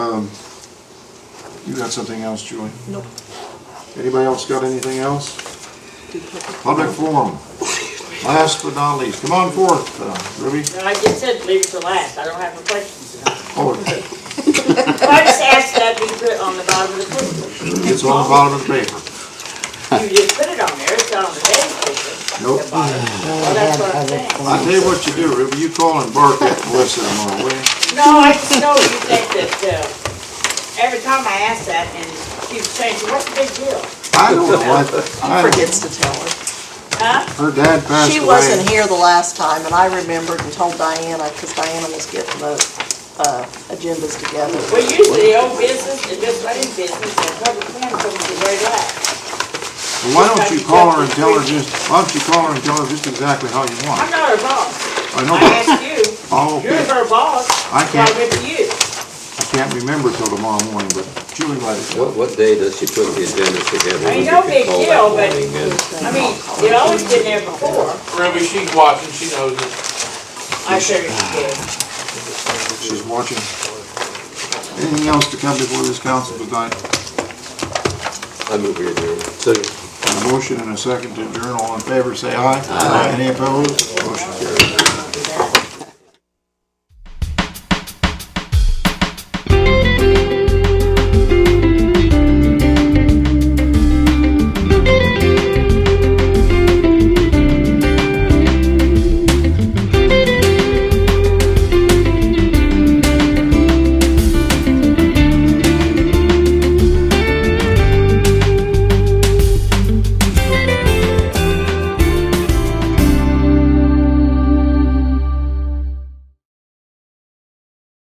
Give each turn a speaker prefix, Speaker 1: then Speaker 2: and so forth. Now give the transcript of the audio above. Speaker 1: Um, You got something else, Julie?
Speaker 2: Nope.
Speaker 1: Anybody else got anything else? Public forum. Last but not least, come on forth, uh, Ruby.
Speaker 3: Like you said, leave it to last, I don't have no questions tonight.
Speaker 1: Oh,
Speaker 3: I just asked that be put on the bottom of the paper.
Speaker 1: it's on the bottom of the paper.
Speaker 3: You just put it on there, it's not on the day's paper.
Speaker 1: Nope.
Speaker 3: The bottom. Well, that's what I'm saying.
Speaker 1: I tell you what you do, Ruby, you call and bark at Melissa tomorrow, will you?
Speaker 3: No, I just know you think that, uh, every time I ask that and keep changing, what's the big deal?
Speaker 1: I don't know, I, I,
Speaker 2: Forgets to tell her.
Speaker 3: Huh?
Speaker 1: her dad passed
Speaker 2: She
Speaker 1: away.
Speaker 2: wasn't here the last time, and I remembered and told Diana, because Diana was getting the, uh, agendas together.
Speaker 3: Well, usually old business and just running business and public plan comes to very
Speaker 1: Well,
Speaker 3: last.
Speaker 1: Why don't you call her and tell her just, why don't you call her and tell her just exactly how you
Speaker 3: I'm
Speaker 1: want?
Speaker 3: not her boss,
Speaker 1: I know,
Speaker 3: I
Speaker 1: but-
Speaker 3: asked you,
Speaker 1: oh,
Speaker 3: you're
Speaker 1: okay,
Speaker 3: her boss,
Speaker 1: I
Speaker 3: so I
Speaker 1: can't,
Speaker 3: went to you.
Speaker 1: I can't remember till tomorrow morning, but Julie let us know.
Speaker 4: What, what day does she put the agenda together?
Speaker 3: I
Speaker 4: We
Speaker 3: know
Speaker 4: could
Speaker 3: big
Speaker 4: call that
Speaker 3: deal, but-
Speaker 4: morning and-
Speaker 3: I mean, it always been there before,
Speaker 5: Ruby, she's watching, she knows it.
Speaker 3: I figured you did.
Speaker 1: She's watching. Anything else to come before this council tonight?
Speaker 4: I move we adjourn. So
Speaker 1: A motion and a second to adjourn, all in favor, say aye. Aye. Any opposed? Motion carries.